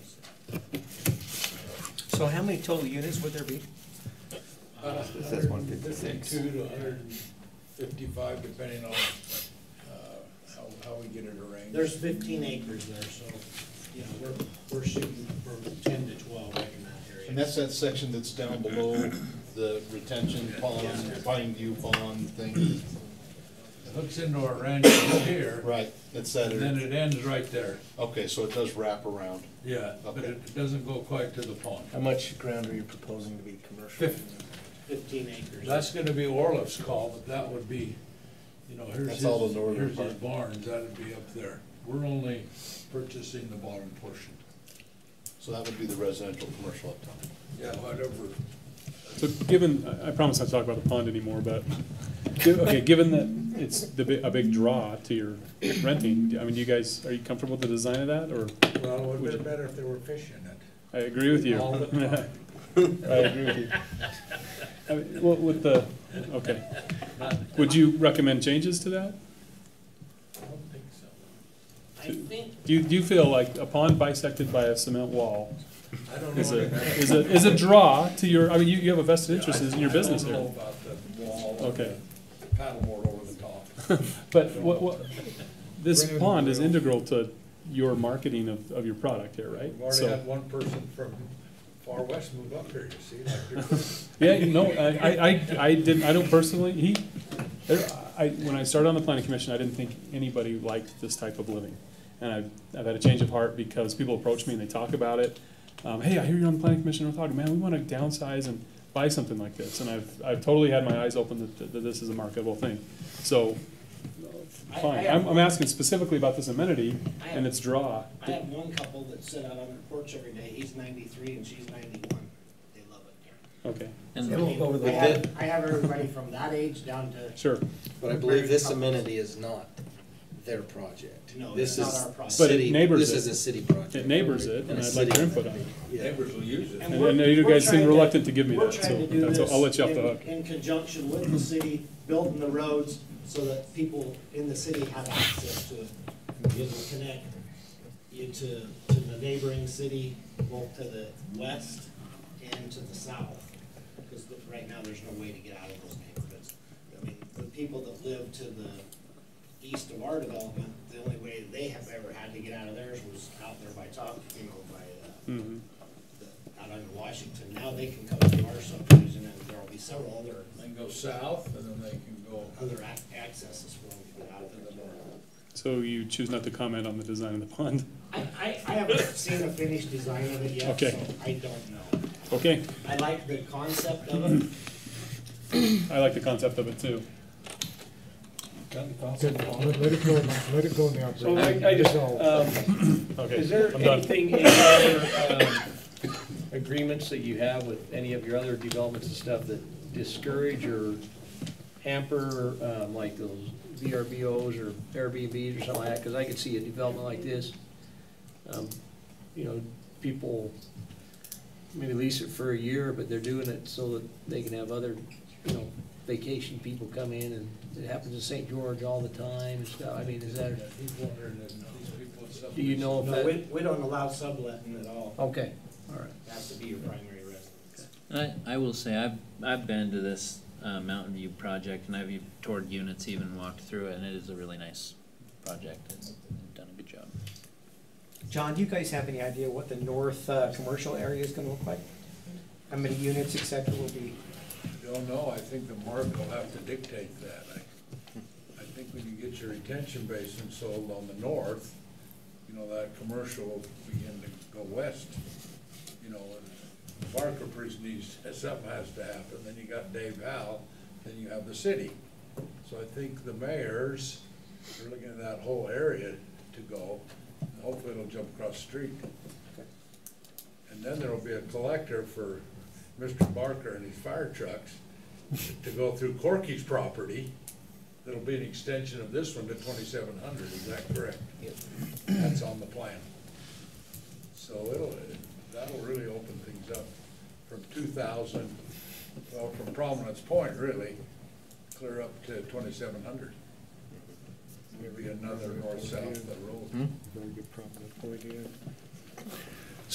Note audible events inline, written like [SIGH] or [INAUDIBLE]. So how many total units would there be? It says 156. 152 to hundred and fifty-five, depending on, uh, how, how we get it arranged. There's fifteen acres there, so, you know, we're, we're shooting for ten to twelve right in that area. And that's that section that's down below the retention pond, pine view pond thing. It hooks into our ranch from here. Right, it's that, And then it ends right there, okay, so it does wrap around. yeah, but Okay. it doesn't go quite to the pond. How much ground are you proposing to be commercial? Fifty. Fifteen acres. That's gonna be Orloff's call, but that would be, you know, here's his, That's all the northern here's his part. barns, that'd be up there. We're only purchasing the bottom portion. So that would be the residential commercial up top. Yeah, whatever. So given, I- I promise not to talk about the pond anymore, but, gi- okay, given that it's the, bi- a big draw to your renting, I mean, do you guys, are you comfortable with the design of that, or? Well, it would've Would you- been better if they were fishing it. I agree with you. All the [LAUGHS] I agree with you. I mean, What, with the, okay. Would you recommend changes to that? I don't think so. I think, Do you, do you feel like a pond bisected by a cement wall I don't is know. a, that- is a, is a draw to your, I mean, you, you have a vested interest in your I don't business here. know about the wall and Okay. the paddleboard over the top. But what, what, this Brand pond is new. integral to your marketing of, of your product here, [LAUGHS] right? We've already So, had one person from far west move up here, you see, like they're- yeah, you know, I, I, I- I didn't, I don't personally, he, there, I, when I started on the planning commission, I didn't think anybody liked this type of living. And I've, I've had a change of heart because people approach me and they talk about it. Um, hey, I hear you're on the planning commission, I'm talking, man, we wanna downsize and buy something like this. And I've, I've totally had my eyes open that- that, that this is a marketable thing. So, I- I fine, have- I'm, I'm asking specifically about this amenity I have- and its draw. I have one couple that sit out on their porch every day, he's ninety-three and she's ninety-one, they love it there. Okay, I And mean, I over the have, I have everybody from that age down to, sure. But I believe this amenity is not their project. No, This it's is not our project. But it city- neighbors This it. is a city project. It neighbors it, and I'd like your input on it. Yeah. neighbors will use it. And And we're- I know you we're guys seem trying to- reluctant to give me We're that, trying to so do that's, I'll let you off the this hook. in- In conjunction with the city, building the roads so that people in the city have access to, you know, connect you to, to the neighboring city, both to the west and to the south. Because right now, there's no way to get out of those neighborhoods. I mean, the people that live to the east of our development, the only way they have ever had to get out of theirs was out there by top, you know, by, uh, Mhm. the- out on Washington, now they can come to our subdivision, and there'll be several other, They can go south, and then they can go, other ac- accesses for them to get out of the door. So you choose not to comment on the design of the pond? I, I, I haven't seen a finished design of it yet, so Okay. I don't know. Okay, I like the concept of it, I like the concept of it too. Let let it go, let it go in the So operating. I, I just, Resolve. um, is Okay, there I'm done. anything in other, um, agreements that you have with any of your other developments and stuff that discourage or hamper, um, like those VRBOs or Airbnbs or something like that? Cause I could see a development like this, um, you know, people maybe lease it for a year, but they're doing it so that they can have other, you know, vacation people come in and it happens in St. George all the time and stuff. I mean, is that? he's wondering if these people. in South- Do you know if no, we, that, we don't allow subletting at all, okay, all right. it has to be your primary residence. I, I will say, I've, I've been to this, uh, Mountain View project, and I've e- toured units, even walked through it, and it is a really nice project, it's they've done a good job. John, do you guys have any idea what the north, uh, commercial area is gonna look like? How many units, et cetera, will be? Don't know, I think the market will have to dictate that. I, I think when you get your retention basin sold on the north, you know, that commercial will begin to go west. You know, and Bar Caprice needs, [LAUGHS] something has to happen, then you got Dave Howe, then you have the city. So I think the mayors, are looking at that whole area to go, and hopefully it'll jump across the street. And then there'll be a collector for Mr. Barker and his fire trucks to go through Corky's property. That'll be an extension of this one to twenty-seven hundred, is that correct? That's on the plan. So it'll, that'll really open things up from two thousand, well, from Prominence Point really, clear up to twenty-seven hundred. Maybe another north-south of the road. Very good problem, point, yeah.